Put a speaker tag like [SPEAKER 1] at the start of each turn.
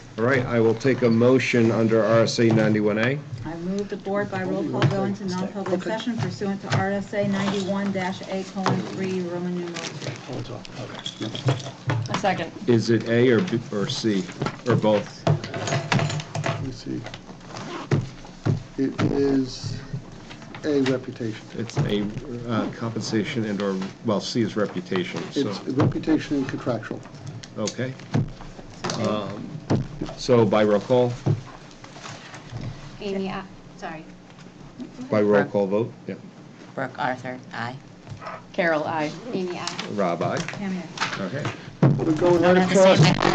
[SPEAKER 1] All right, I will take a motion under RSA 91A.
[SPEAKER 2] I move the board by roll call go into non-public session pursuant to RSA 91-A colon 3, Roman numeral 3.
[SPEAKER 3] A second.
[SPEAKER 1] Is it A or B, or C, or both?
[SPEAKER 4] Let me see. It is a reputation.
[SPEAKER 1] It's a uh, compensation and or, well, C is reputation, so,
[SPEAKER 4] It's reputation and contractual.
[SPEAKER 1] okay. Um, So by roll call,
[SPEAKER 5] Amy, I- sorry.
[SPEAKER 1] by roll call vote, yeah.
[SPEAKER 6] Brooke Arthur, aye.
[SPEAKER 3] Carol, I.
[SPEAKER 5] Amy, I.
[SPEAKER 1] Rob, aye.
[SPEAKER 2] Cameo.
[SPEAKER 1] Okay.
[SPEAKER 4] We're going right
[SPEAKER 6] Don't have to say
[SPEAKER 4] across.
[SPEAKER 6] my